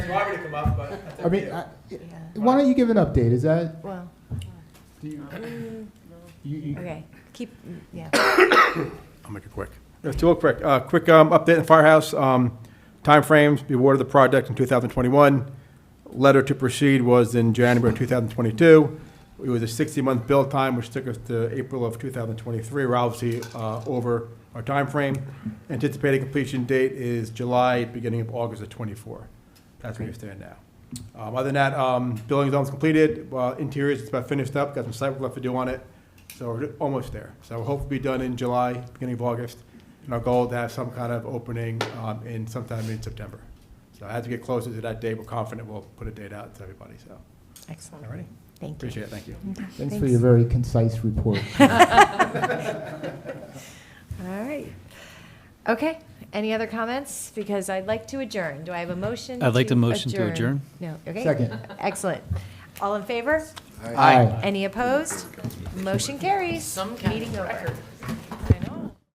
want me to come up, but. that's I mean, okay. I- Yeah. why don't you give an update? Is that, Well, do you, you, you- Mm. okay, keep, yeah. I'll make it quick. It's real quick. Uh, Quick um, update on Firehouse. Um, Timeframes, the award of the project in 2021. Letter to proceed was in January of 2022. It was a 60-month build time, which took us to April of 2023. We're obviously uh, over our timeframe. Anticipated completion date is July, beginning of August of '24. That's where we stand now. Um, Other than that, um, building's almost completed. Uh, Interiors, it's about finished up. Got some site work left to do on it. So we're almost there. So we'll hopefully be done in July, beginning of August. And our goal to have some kind of opening um, in sometime in September. So as we get closer to that date, we're confident we'll put a date out to everybody, so. Excellent. Alrighty. Thank you. Appreciate it, thank you. Okay, thanks for your very concise report. All right. Okay, any other comments? Because I'd like to adjourn. Do I have a motion? I'd like to motion to adjourn. No, okay. Second. Excellent. All in favor? Aye. Any opposed? Motion carries. Meeting over.